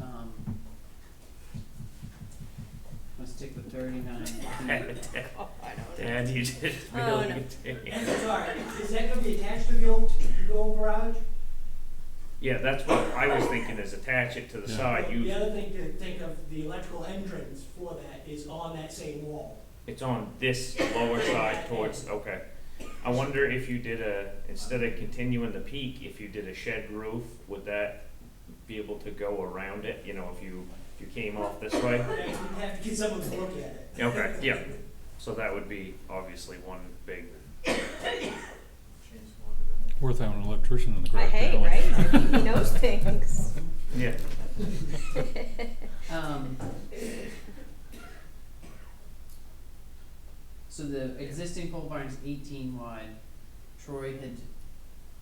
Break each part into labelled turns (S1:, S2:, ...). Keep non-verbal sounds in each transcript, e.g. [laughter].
S1: Um,
S2: [laughs]
S3: thirty-nine.
S2: Dad, you just
S4: Oh,
S2: really
S4: no.
S2: did.
S3: Sorry, is that gonna be attached to the old, the old garage?
S2: Yeah, that's what I was thinking, is attach it to the
S5: Yeah.
S2: side, Uh,
S3: The
S2: you,
S3: other thing to think of, the electrical entrance for that is on that same wall.
S2: it's on this lower side towards, okay. I wonder if you did a, instead of continuing the peak, if you did a shed roof, would that be able to go around it, you know, if you, if you came off this way?
S3: We'd have to get someone to look at it.
S2: Okay, yeah, so that would be obviously one big,
S5: Worth having an electrician in the
S4: I
S5: garage.
S4: hate,
S5: now.
S4: right? [laughs] He knows things.
S2: yeah,
S1: Um. So the existing pole barn's eighteen wide, Troy had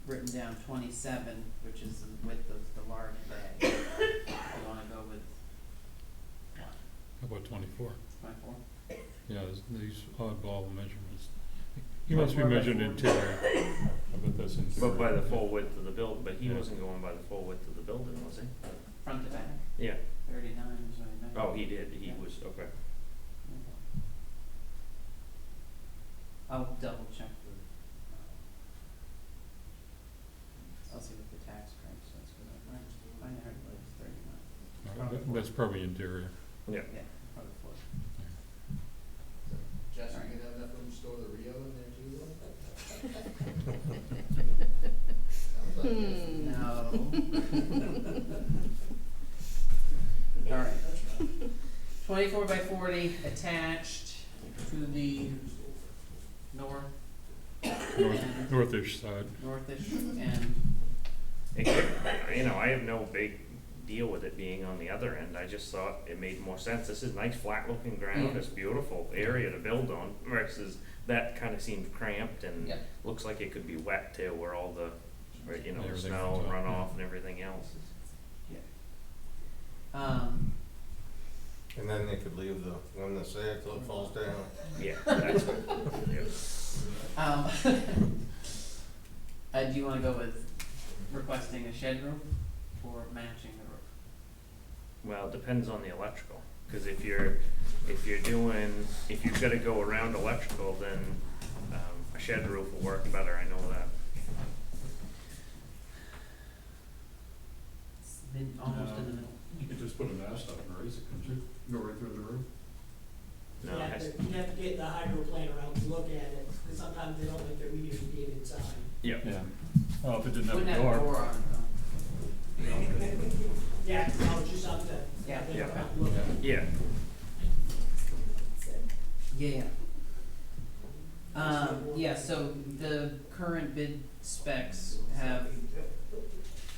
S1: written down twenty-seven, which is the width of the large bay. [coughs] You wanna go with
S5: How about twenty-four?
S1: twenty-four?
S5: Yeah, there's these oddball measurements. He must be
S1: 24 by
S5: measuring
S1: 40.
S5: interior. I bet that's interior.
S2: but by the full width of the build, but he
S5: Yeah.
S2: wasn't going by the full width of the building, was he?
S1: Front to back,
S2: Yeah,
S1: thirty-nine is what I meant.
S2: oh, he did, he
S1: Yeah.
S2: was, okay.
S1: I'll double check the. I'll see what the tax credit says, cause I might, I heard it was thirty-nine,
S5: Uh, that- That's probably interior.
S1: yeah, probably four.
S6: Jesse,
S1: Alright.
S6: you have enough room to store the Rio in there too? though? Sounds like it.
S4: [laughs]
S1: [laughs]
S4: Hmm.
S1: No. Alright. Twenty-four by forty attached to the north
S5: North, northish side.
S1: northish end.
S2: It could- You know, I have no big deal with it being on the other end, I just thought it made more sense, this is nice flat looking ground,
S6: Mm.
S1: Yeah.
S2: it's beautiful area to build on versus that kinda seemed cramped and
S1: Yeah.
S2: looks like it could be wet too, where all the, right, you know, the
S5: Everything
S2: snow
S5: comes
S2: and
S5: up, yeah.
S2: runoff and everything else is.
S1: Um,
S7: And then they could leave the one that's there till it falls down.
S2: Yeah, that's, yeah.
S1: um, [laughs] uh, do you wanna go with requesting a shed roof or matching the roof?
S2: well, it depends on the electrical, cause if you're, if you're doing, if you've gotta go around electrical, then, um, a shed roof will work better, I know that.
S1: It's been almost in the middle.
S5: You could just put a mast up and raise it, couldn't you? Go right through the roof.
S2: No,
S3: You'd
S2: it
S3: have
S2: has-
S3: to, you'd have to get the hydro plant around to look at it, cause sometimes they don't like their meters being inside.
S2: yeah.
S5: Yeah. Well, if it didn't
S1: Wouldn't have a door on it though.
S3: Yeah, I'll just have to,
S1: Yeah.
S3: have them
S2: Yeah.
S3: around to look at it.
S2: Yeah,
S1: Yeah, yeah. Um, yeah, so the current bid specs have,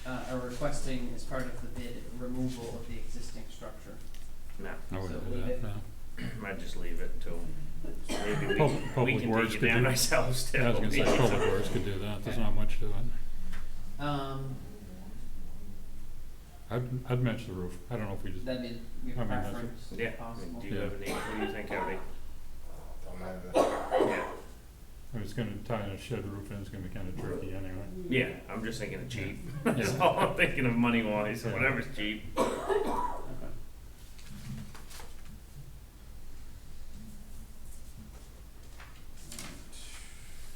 S1: uh, are requesting as part of the bid removal of the existing structure.
S2: no,
S5: I
S1: So
S5: wouldn't do
S1: leave it.
S5: that, no.
S2: might just leave it until maybe we
S5: Pub-
S2: can, we
S5: Public
S2: can
S5: Works
S2: take it
S5: could
S2: down
S5: do-
S2: ourselves too.
S5: Yeah, I was gonna say, public works could do that. There's not much to it.
S1: Um,
S5: I'd, I'd match the roof. I don't know if we just,
S1: that'd be
S5: I
S1: your
S5: mean, that's-
S1: preference,
S2: Yeah,
S1: if
S2: I mean,
S1: possible.
S2: do you have any, what do you think, Abby?
S7: Don't matter.
S2: Yeah,
S5: I was gonna tie in a shed roof and it's gonna be kinda tricky anyway.
S2: yeah, I'm just thinking of cheap, [laughs] that's
S5: Yeah.
S2: all I'm thinking of money wise, so whatever's cheap.
S1: Okay.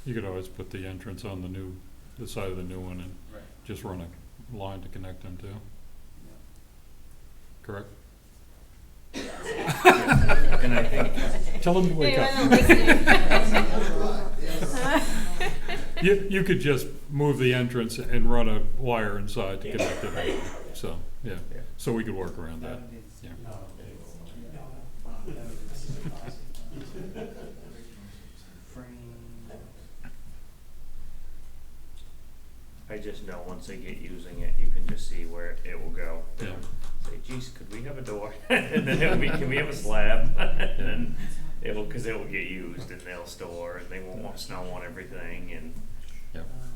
S5: You could always put the entrance on the new, the side of the new one and
S1: Right.
S5: just run a line to connect them to, correct?
S2: And I think,
S5: Tell them to wake
S4: Anyone
S5: up.
S4: listening?
S5: You, you could just move the entrance and run a wire inside to connect it, so, yeah,
S2: Yeah.
S5: so we could work around
S1: That
S5: that.
S1: would be,
S5: Yeah.
S1: that would be. Frame.
S2: I just know once they get using it, you can just see where it will go.
S5: Yeah.
S2: Say, geez, could we have a door? [laughs] And then it'll be, can we have a slab? [laughs] And then it'll, cause it'll get used and they'll store and they won't want snow on everything and,
S1: Um,